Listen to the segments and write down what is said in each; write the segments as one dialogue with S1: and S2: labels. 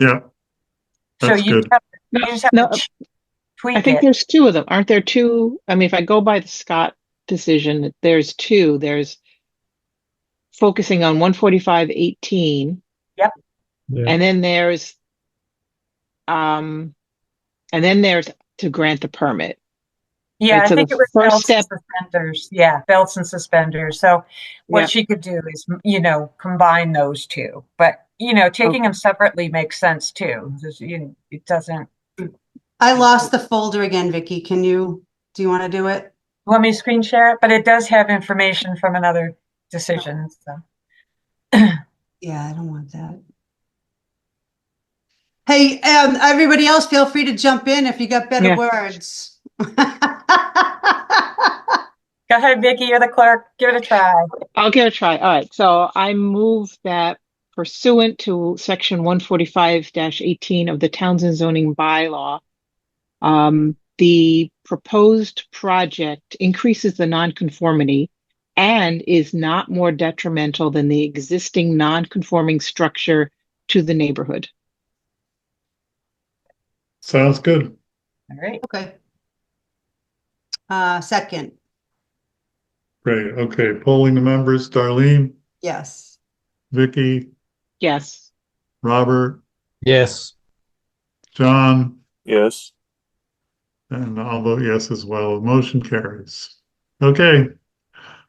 S1: Yeah.
S2: So
S1: That's
S2: you
S1: good.
S2: just have-
S3: No,
S2: you just have
S3: no,
S2: to ch-
S3: I
S2: tweak
S3: think
S2: it.
S3: there's two of them. Aren't there two? I mean, if I go by the Scott decision, there's two. There's focusing on one forty-five eighteen.
S2: Yep.
S4: Yeah.
S3: And then there's um, and then there's to grant the permit.
S2: Yeah, I
S3: so the
S2: think it was
S3: first
S2: belts and
S3: step-
S2: suspenders. Yeah, belts and suspenders. So
S3: Yeah.
S2: what she could do is, you know, combine those two. But, you
S3: Oh.
S2: know, taking them separately makes sense too. This- you- It doesn't,
S5: I lost the folder again, Vicky. Can you, do you want to do it?
S2: let me screen share it, but it does have information from another decision, so.
S5: Yeah, I don't want that. Hey, um, everybody else, feel free to jump in if you got better
S3: Yeah.
S5: words. All
S2: Go ahead, Vicky, you're the clerk. Give it a try.
S3: I'll give it a try. All right, so I move that pursuant to section one forty-five eighteen of the Townsend zoning bylaw, um, the proposed project increases the nonconformity and is not more detrimental than the existing nonconforming structure to the neighborhood.
S1: Sounds good.
S2: All right.
S5: Okay. Uh, second,
S1: Great. Okay. Polling the members, Darlene,
S5: yes.
S1: Vicky,
S3: Yes,
S1: Robert,
S4: Yes.
S1: John,
S6: Yes.
S1: and I'll vote yes as well. Motion carries. Okay.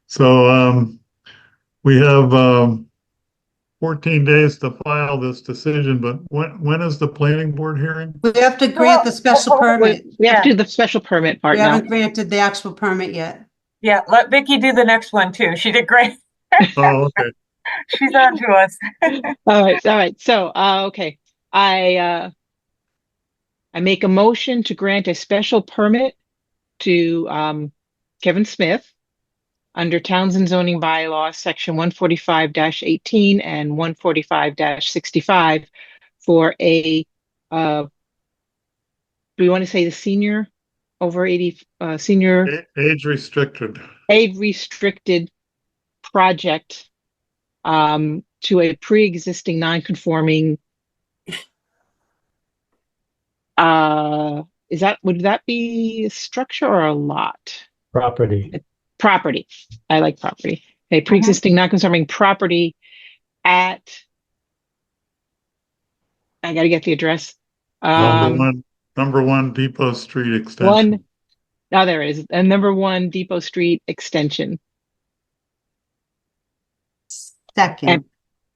S1: So, um, we have, um, fourteen days to file this decision, but when, when is the planning board hearing?
S5: We have to grant the special
S2: Well,
S5: permit.
S3: we have
S2: Yeah.
S3: to do the special permit
S5: We
S3: part now.
S5: haven't granted the actual permit yet.
S2: Yeah, let Vicky do the next one too. She did great.
S1: Oh, okay.
S2: She's on to us.
S3: All right, all right. So, uh, okay, I, uh, I make a motion to grant a special permit to, um, Kevin Smith under Townsend zoning bylaw, section one forty-five eighteen and one forty-five sixty-five for a, uh, do we want to say the senior over eighty, uh, senior?
S1: A- Age restricted.
S3: a restricted project um, to a pre-existing non-conforming uh, is that would that be a structure or a lot
S4: Property.
S3: property i like property a pre-existing non-conforming property at i gotta get the address
S1: Number
S3: um,
S1: one, number one Depot Street extension.
S3: one now oh, there it is a number one depot street extension
S5: Second,
S3: And-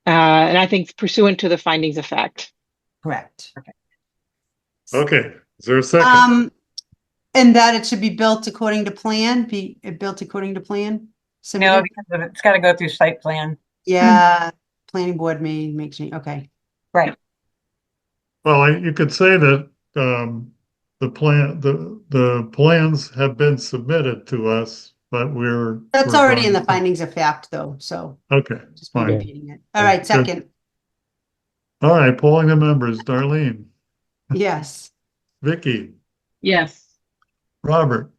S3: Uh, and I think pursuant to the findings of fact.
S5: correct.
S1: Okay. Is there a second?
S5: Um, and that it should be built according to plan, be uh, built according to plan?
S2: No,
S5: Submitted?
S2: because of it- it's got to go through site plan.
S5: Yeah, planning board may make change, okay.
S1: Well, I- you could say that um, the plan, the, the plans have been submitted to us, but we're.
S5: That's
S1: we're
S5: already in the
S1: going-
S5: findings of fact, though, so
S1: Okay,
S5: just be
S1: fine.
S5: repeating it. All right, second,
S1: All right, polling the members, Darlene,
S5: yes.
S1: Vicky,
S3: Yes.
S1: Robert,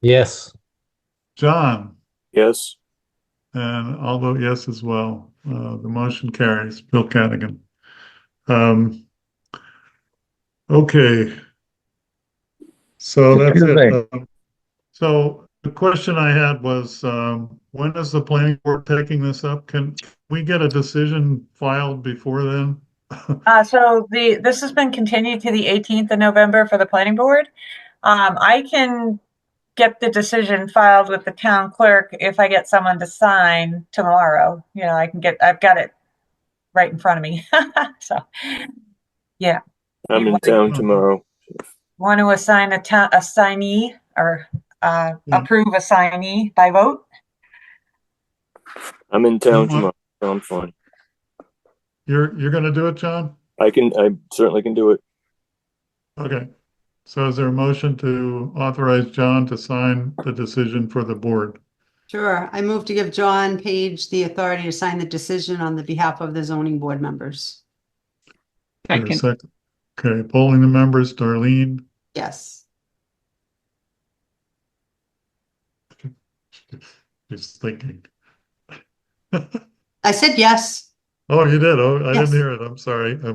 S4: Yes.
S1: John,
S6: Yes.
S1: and I'll vote yes as well. Uh, the motion carries. Bill Cadigan. Um, okay. So that's it. Um, So the question I had was, um, when is the planning board taking this up? Can we get a decision filed before then?
S2: Uh, so the, this has been continued to the 18th of November for the planning board. Um, I can get the decision filed with the town clerk if I get someone to sign tomorrow. You know, I can get, I've got it right in front of me. So
S6: I'm in town tomorrow.
S2: want to assign a town, a signee or, uh,
S1: Yeah.
S2: approve a signee by vote?
S6: I'm in town
S1: Mhm.
S6: tomorrow. so I'm fine.
S1: You're, you're gonna do it, John?
S6: I can, I certainly can do it.
S1: Okay. So is there a motion to authorize John to sign the decision for the board?
S5: Sure, I move to give John Page the authority to sign the decision on the behalf of the zoning board members.
S1: Is there a
S3: Second.
S1: second? Okay, polling the members, Darlene,
S5: Yes,
S1: just thinking.
S5: I said yes.
S1: Oh, you did? Oh, I didn't
S5: Yes.
S1: hear it. I'm sorry.